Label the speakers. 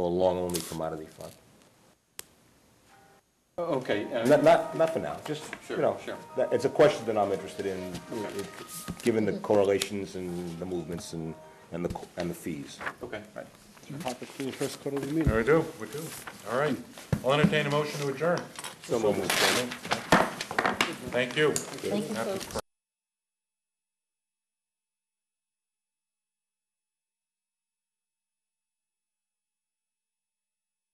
Speaker 1: a long-only commodity fund.
Speaker 2: Oh, Okay, Uh,
Speaker 1: Not,
Speaker 2: and
Speaker 1: not, not for now, just, you
Speaker 2: Sure,
Speaker 1: know,
Speaker 2: sure.
Speaker 1: that- it's a question that I'm interested in,
Speaker 2: Okay.
Speaker 1: it- given the correlations and the movements and, and the, co- and the fees.
Speaker 2: okay.
Speaker 3: Topic for the first quarterly meeting.
Speaker 4: We do, we do. All right. I'll entertain a motion to adjourn.
Speaker 1: So moved.
Speaker 4: Thank you.
Speaker 5: Thank you, folks.